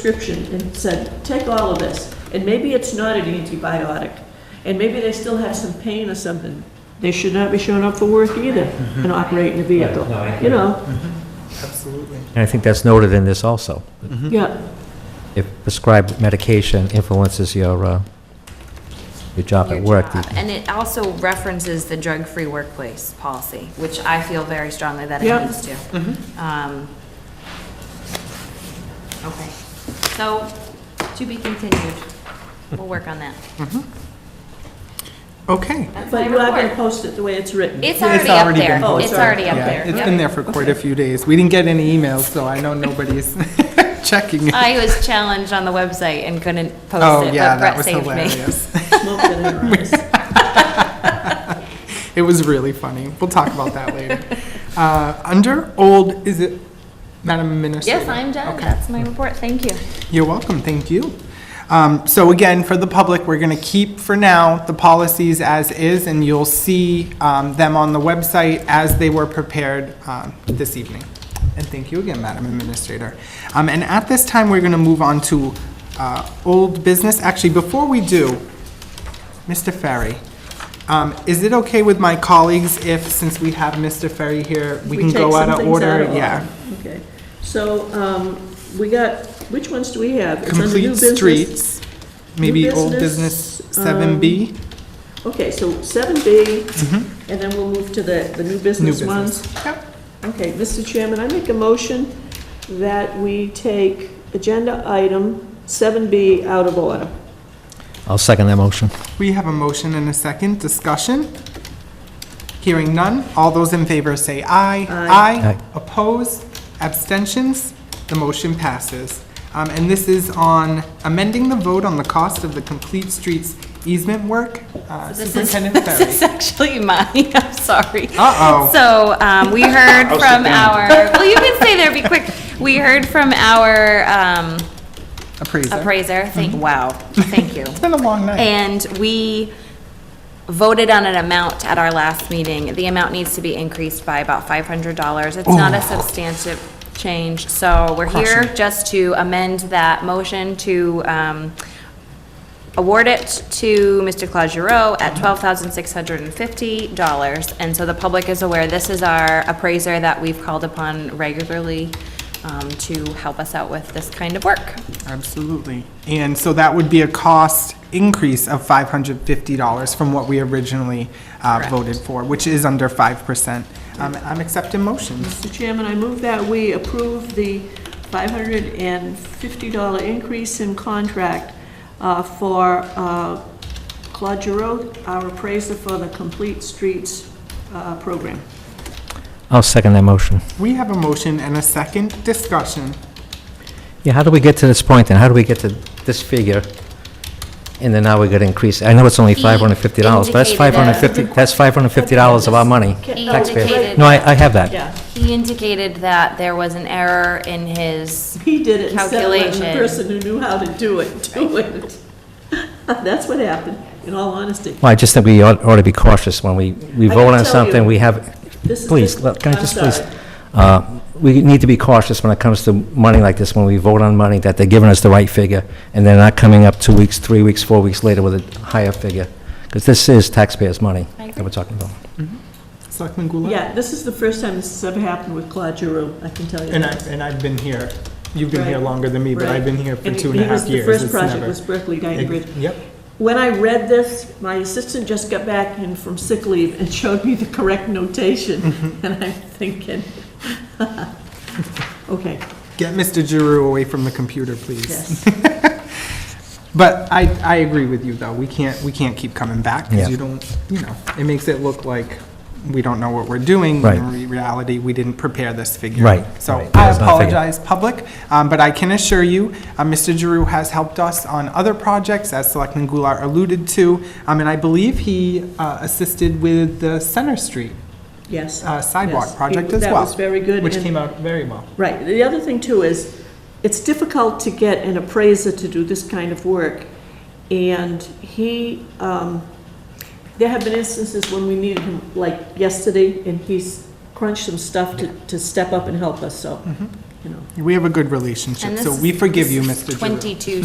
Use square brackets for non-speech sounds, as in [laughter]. prescription and said, take all of this, and maybe it's not an antibiotic, and maybe they still have some pain or something, they should not be showing up for work either and operating the vehicle. Right, no, I agree. You know, Absolutely. And I think that's noted in this also. Mm-hmm. yeah, If prescribed medication influences your, uh, your job at your work. job. And it also references the drug-free workplace policy, which I feel very strongly that Yep. it needs to. Mm-hmm. Um, Okay, so to be continued. We'll work on that. Okay. That's my but you are gonna report. post it the way it's written. It's already up already there. been Oh, it's It's already up Yeah, there. It's Yep. been there for quite a few days. We didn't get any emails, so I know nobody's [laughs] checking. [laughs] it. I was challenged on the website and couldn't Oh, post it, yeah, that but Brett was saved me. hilarious. Smoke it in our eyes. It was really funny. We'll talk about that later. Uh, Under old, is it Madam Administrator? [laughs] Yes, I'm done. Okay. That's my report. Thank you. You're welcome, thank you. Um, So again, for the public, we're going to keep for now the policies as is, and you'll see um, them on the website as they were prepared um, this evening. And thank you again, Madam Administrator. Um, And at this time, we're going to move on to uh, old business. Actually, before we do, Mr. Ferry, um, is it okay with my colleagues if, since we have Mr. Ferry here, we can take go some out of things order? order. Yeah. Okay, so, um, we got, which ones do we have? It's under new Complete business. streets, maybe old business, business 7B? Okay, so seven B, and then we'll move to the, the new business business. ones. Yep. Okay, Mr. Chairman, I make a motion that we take agenda item 7B out of order. I'll second that motion. We have a motion and a second discussion. Hearing none, all those in favor say aye. Aye. Opposed, abstentions, the motion passes. Um, And this is on amending the vote on the cost of the Complete Streets easement work. Uh, This is- [laughs] Superintendent This Ferry. is actually mine, [laughs] I'm sorry. Uh-oh. So, um, we heard from our, well, you can stay there, be quick. We heard from our, um, Appraiser. appraiser, thank, wow, thank you. It's been a long night. And we voted on an amount at our last meeting. The amount needs to be increased by about five hundred dollars. It's not a Oh. substantive change, so we're here just to amend that motion to, um, award it to Mr. Claude Giroux Mm-hmm. at twelve thousand six hundred and fifty dollars. And so the public is aware, this is our appraiser that we've called upon regularly, um, to help us out with this kind of work. Absolutely. And so that would be a cost increase of $550 from what we originally uh, voted for, which is under 5%. Um, I'm accepting motions. Mr. Chairman, I move that we approve the $550 increase in contract uh, for uh, Claude Giroux, our appraiser for the Complete Streets uh, program. I'll second that motion. We have a motion and a second discussion. Yeah, how do we get to this point then? How do we get to this figure? And then now we're gonna increase, I know it's only He five hundred and fifty dollars, but that's indicated a- five hundred and fifty, that's five hundred and fifty dollars of our money, He taxpayers. indicated- No, I, I have that. Yeah, He indicated that there was an error in his, he did it instead of letting the Calculation. person who knew how to do it do it. [laughs] That's what happened, in all honesty. Well, I just think we ought, ought to be cautious when we, we I vote can on tell something, you- we have, This is please, just- look, can I I'm just please? sorry. uh, We need to be cautious when it comes to money like this, when we vote on money, that they're giving us the right figure, and they're not coming up two weeks, three weeks, four weeks later with a higher figure. Because this is taxpayers' money I that agree. we're talking about. Selectman Goulart? Yeah, this is the first time this has ever happened with Claude Giroux, I can tell you. And I, that. and I've been here, you've been here Right. longer than me, but I've been here for And two and a he was- half years. The first It's project never- was Berkeley Dyton Bridge. Yep, When I read this, my assistant just got back in from sick leave and showed me the correct [laughs] notation, Mm-hmm. and I'm thinking, [laughs] okay, get Mr. Giroux away from the computer, please. [laughs] yes. But I, I agree with you, though, we can't, we can't keep coming back, Yeah. because you don't, you know, it makes it look like we don't know what we're doing. Right. when In re- reality, we didn't prepare this figure. Right, So right. I That's not a figure. apologize, public, um, but I can assure you, uh, Mr. Giroux has helped us on other projects, as Selectman Goulart alluded to, Um, and I believe he uh, assisted with the Center Street Yes. uh, sidewalk yes. project He- as well. That was very good. Which and- came out very well. Right, the other thing too is, it's difficult to get an appraiser to do this kind of work. And he, um, there have been instances when we needed him, like yesterday, and he's crunched some stuff to, to step up and help us, so you know. We have a good And relationship, this so is- we forgive you, this is Mr. Giroux. Twenty-two